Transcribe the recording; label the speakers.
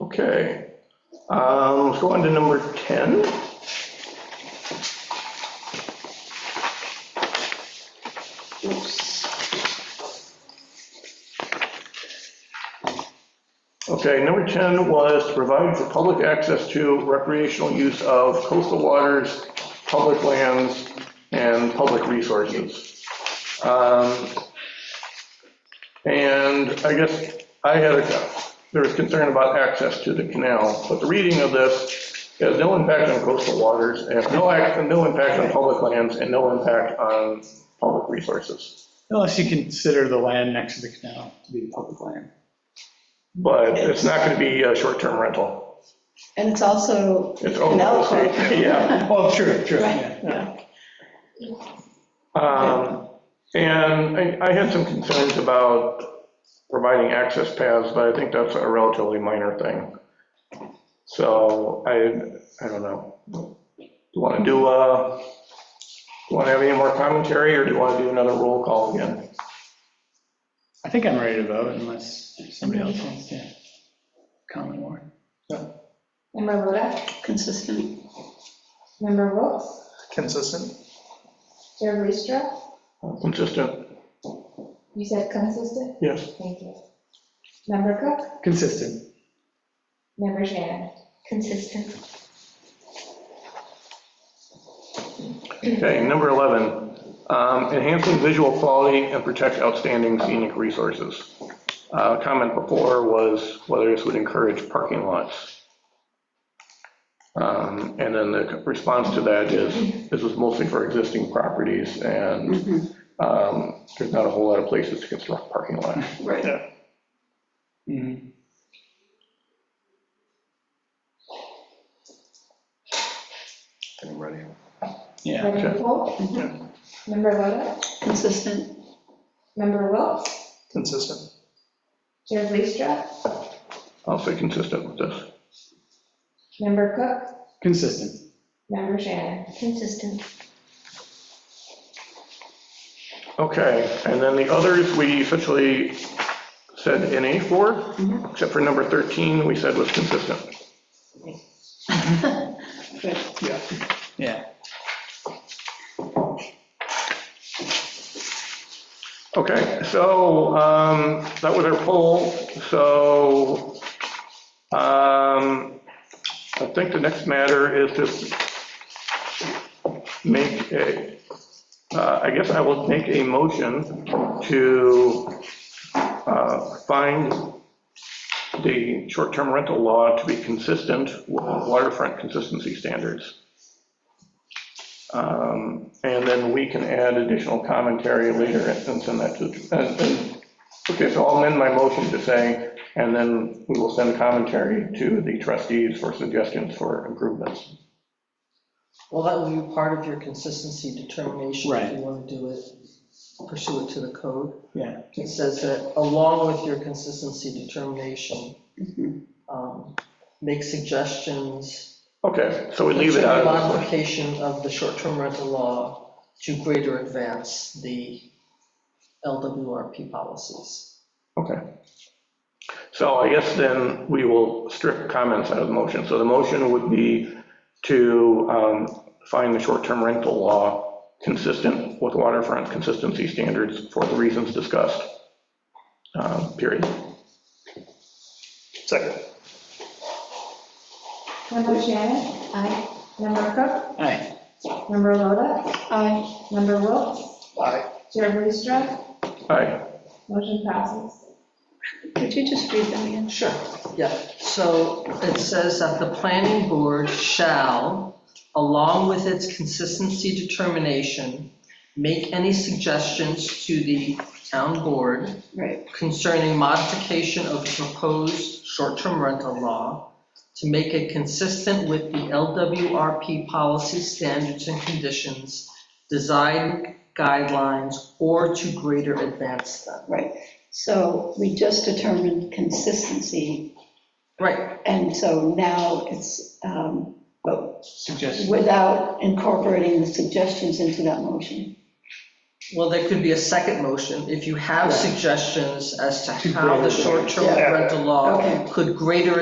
Speaker 1: Okay, um, let's go on to number 10. Okay, number 10 was to provide for public access to recreational use of coastal waters, public lands, and public resources. Um, And I guess I had, a there was concern about access to the canal, but the reading of this has no impact on coastal waters, and no, act- no impact on public lands, and no impact on public resources.
Speaker 2: Unless you consider the land next to the canal to be public land.
Speaker 1: But it's not going to be a short-term rental.
Speaker 3: And it's also
Speaker 1: It's open
Speaker 3: canal
Speaker 1: estate,
Speaker 3: corridor.
Speaker 1: yeah.
Speaker 2: Oh, true, true,
Speaker 3: Right,
Speaker 2: yeah.
Speaker 3: yeah.
Speaker 1: Um, And I- I had some concerns about providing access paths, but I think that's a relatively minor thing. So I, I don't know. Do you want to do, uh, do you want to have any more commentary, or do you want to do another roll call again?
Speaker 2: I think I'm ready to vote unless somebody else wants to comment more.
Speaker 4: Member Loda,
Speaker 3: Consistent.
Speaker 4: Member Wilks,
Speaker 5: consistent.
Speaker 4: Chair Ristra,
Speaker 1: Consistent?
Speaker 4: you said consistent?
Speaker 1: Yes.
Speaker 4: Thank you. Member Cook,
Speaker 2: Consistent.
Speaker 4: Member Shannon. Consistent.
Speaker 1: Okay, number 11, um, enhancing visual quality and protect outstanding scenic resources. Uh, Comment before was whether this would encourage parking lots. Um, And then the response to that is, this was mostly for existing properties, and
Speaker 3: Mhm,
Speaker 1: um, there's not a whole lot of places to construct parking lots.
Speaker 3: Right.
Speaker 5: Mm-hmm.
Speaker 2: Mhm.
Speaker 5: Getting ready.
Speaker 2: Yeah,
Speaker 4: Member Cole,
Speaker 3: Mhm.
Speaker 4: Member Loda,
Speaker 3: Consistent.
Speaker 4: Member Wilks,
Speaker 5: Consistent,
Speaker 4: Chair Ristra,
Speaker 1: I'll say consistent with this.
Speaker 4: Member Cook,
Speaker 2: consistent.
Speaker 4: Member Shannon. Consistent.
Speaker 1: Okay, and then the others, we essentially said NA for,
Speaker 3: Mhm.
Speaker 1: except for number 13, we said was consistent.
Speaker 3: Good.
Speaker 2: Yeah. Yeah,
Speaker 1: Okay, so um, that was our poll, so um, I think the next matter is to make a, uh, I guess I will make a motion to uh, find the short-term rental law to be consistent with waterfront consistency standards. Um, And then we can add additional commentary later and send that to, and- and- uh, okay, so I'll amend my motion to say, and then we will send commentary to the trustees for suggestions for improvements.
Speaker 6: Well, that will be part of your consistency determination if
Speaker 2: Right.
Speaker 6: you want to do it, pursue it to the code.
Speaker 2: yeah.
Speaker 6: It says that along with your consistency determination,
Speaker 3: Mhm.
Speaker 6: um, make suggestions.
Speaker 1: Okay, so we leave it
Speaker 6: for
Speaker 1: out. of this one.
Speaker 6: Modification of the short-term rental law to greater advance the LWRP policies.
Speaker 1: Okay. So I guess then we will strip comments out of the motion. So the motion would be to um, find the short-term rental law consistent with waterfront consistency standards for the reasons discussed, Uh, period.
Speaker 5: second,
Speaker 4: Member Shannon. Aye. Member Cook,
Speaker 2: Aye,
Speaker 4: Member Loda. Aye. Member Wilks,
Speaker 5: aye,
Speaker 4: Chair Ristra,
Speaker 1: Aye.
Speaker 4: motion passes.
Speaker 3: Could you just read them again?
Speaker 6: Sure, yeah. So it says that the planning board shall, along with its consistency determination, make any suggestions to the town board
Speaker 3: Right.
Speaker 6: concerning modification of the proposed short-term rental law to make it consistent with the LWRP policy standards and conditions, design guidelines, or to greater advance them.
Speaker 3: Right. So we just determined consistency,
Speaker 6: Right,
Speaker 3: and so now it's, um, but
Speaker 2: suggestion.
Speaker 3: without incorporating the suggestions into that motion.
Speaker 6: well, there could be a second motion if you have suggestions as to
Speaker 2: To
Speaker 6: how
Speaker 2: greater
Speaker 6: the
Speaker 2: advance.
Speaker 6: short-term
Speaker 5: Yeah.
Speaker 6: rental law
Speaker 3: Okay.
Speaker 6: could greater